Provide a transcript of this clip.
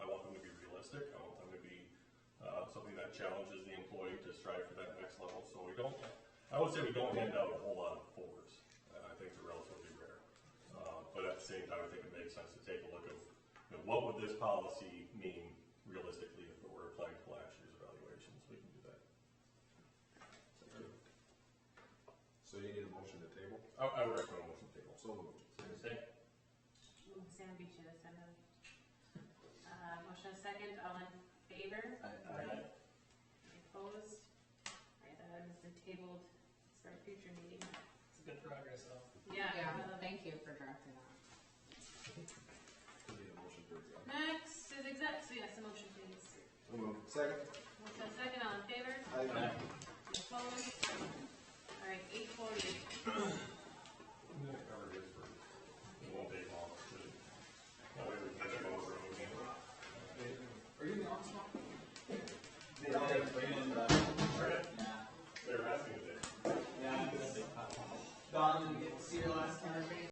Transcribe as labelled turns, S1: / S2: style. S1: uh, that challenges the employee to strive for that next level, so we don't, I would say we don't hand out a whole lot of fours, Uh, I think they're relatively rare. Uh, but at the same time, I think it makes sense to take a look at, you know, what would this policy mean realistically if it were applied to last year's evaluations, we can do that.
S2: So you need a motion to table?
S1: I, I would recommend motion table.
S2: So moved.
S3: Moved by Sam Beechey, a second. Uh, motion a second, all in favor?
S1: Aye.
S3: Any Opposed? Alright, that item has been tabled, it's for a future meeting.
S4: It's good progress though.
S3: Yeah.
S5: Yeah,
S3: uh,
S5: thank you for drafting that.
S2: You need a motion to adjourn?
S3: Next is exec, so yes, a motion please.
S2: So moved. Second?
S3: Motion a second, all in favor?
S2: Aye.
S3: Any Opposed? Alright, eight forty.
S1: I'm gonna cover this for, it won't take long. That way we can get over it again.
S2: Are you in the office now?
S6: They don't have Brandon, uh, but,
S1: Alright,
S6: yeah,
S1: they're asking if they-
S6: yeah. Don didn't get to see her last time.